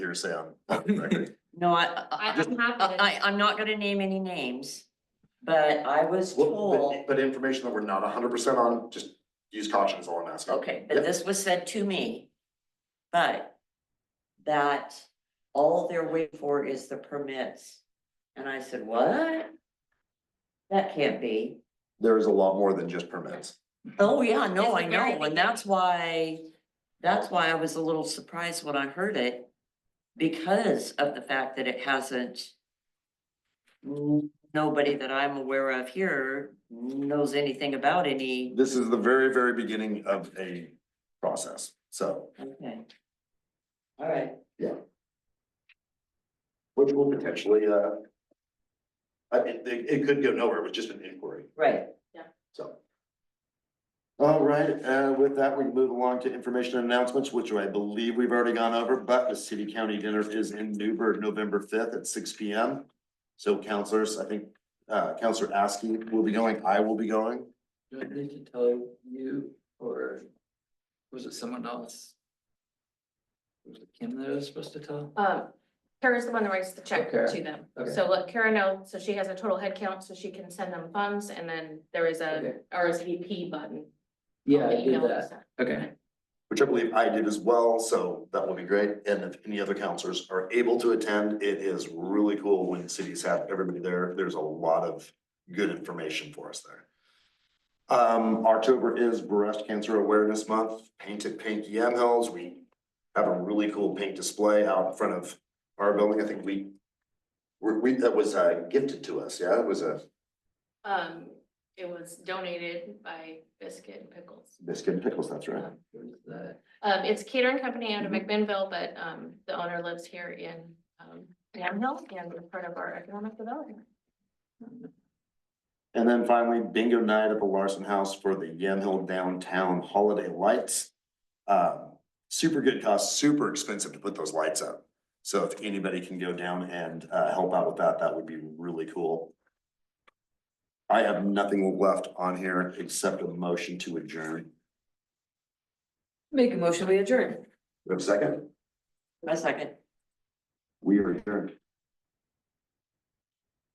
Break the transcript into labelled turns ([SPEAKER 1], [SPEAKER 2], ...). [SPEAKER 1] your say on on record.
[SPEAKER 2] No, I, I,
[SPEAKER 3] I'm happy to-
[SPEAKER 2] I, I'm not gonna name any names, but I was
[SPEAKER 1] Well,
[SPEAKER 2] told,
[SPEAKER 1] But but information that we're not hundred percent on, just use caution is all I'm asking.
[SPEAKER 2] okay, but this was said to me. But that all they're waiting for is the permits. And I said, what? That can't be.
[SPEAKER 1] There is a lot more than just permits.
[SPEAKER 2] Oh, yeah, no,
[SPEAKER 3] It's
[SPEAKER 2] I
[SPEAKER 3] the very
[SPEAKER 2] know, and that's why, that's why I was a little surprised when I heard it. Because of the fact that it hasn't. n- Nobody that I'm aware of here knows anything about any,
[SPEAKER 1] This is the very, very beginning of a process, so.
[SPEAKER 2] okay. All right,
[SPEAKER 1] Which will potentially, uh. I, it, it it could go nowhere, it was just an inquiry,
[SPEAKER 2] right,
[SPEAKER 1] so. All right, uh, with that, we move along to information and announcements, which I believe we've already gone over, but the city county dinner is in Newburgh, November fifth at six P M. So counselors, I think, uh, Counselor Askey will be going, I will be going.
[SPEAKER 4] Do I need to tell you or was it someone else? Was it Kim that I was supposed to tell?
[SPEAKER 3] Um, Kara's the one that writes the check
[SPEAKER 4] Okay.
[SPEAKER 3] to them.
[SPEAKER 4] Okay.
[SPEAKER 3] So let Kara know, so she has a total head count, so she can send them funds, and then there is a
[SPEAKER 4] Okay.
[SPEAKER 3] RSVP button.
[SPEAKER 4] Yeah, I
[SPEAKER 3] that you
[SPEAKER 4] did
[SPEAKER 3] know
[SPEAKER 4] that.
[SPEAKER 3] it's-
[SPEAKER 4] Okay,
[SPEAKER 1] which I believe I did as well, so that will be great. And if any other counselors are able to attend, it is really cool when cities have everybody there. There's a lot of good information for us there. Um, October is Breast Cancer Awareness Month, Paint at Pink Yamhills. We have a really cool paint display out in front of our building. I think we we- we, that was uh, gifted to us, yeah, it was a
[SPEAKER 3] Um, it was donated by Biscuit and Pickles.
[SPEAKER 1] biscuit and pickles, that's right.
[SPEAKER 3] Um,
[SPEAKER 4] what is that?
[SPEAKER 3] um, it's a catering company out of
[SPEAKER 4] Mm-hmm.
[SPEAKER 1] Mhm.
[SPEAKER 3] McMinnville, but, um, the owner lives here in, um, Yamhill, and we're part of our economic development.
[SPEAKER 1] And then finally, bingo night at the Larson House for the Yamhill Downtown Holiday Lights. Um, super good cost, super expensive to put those lights up. So if anybody can go down and uh help out with that, that would be really cool. I have nothing left on here except a motion to adjourn.
[SPEAKER 5] Make a motion, we adjourn.
[SPEAKER 1] We have a second?
[SPEAKER 2] a second.
[SPEAKER 1] We are adjourned.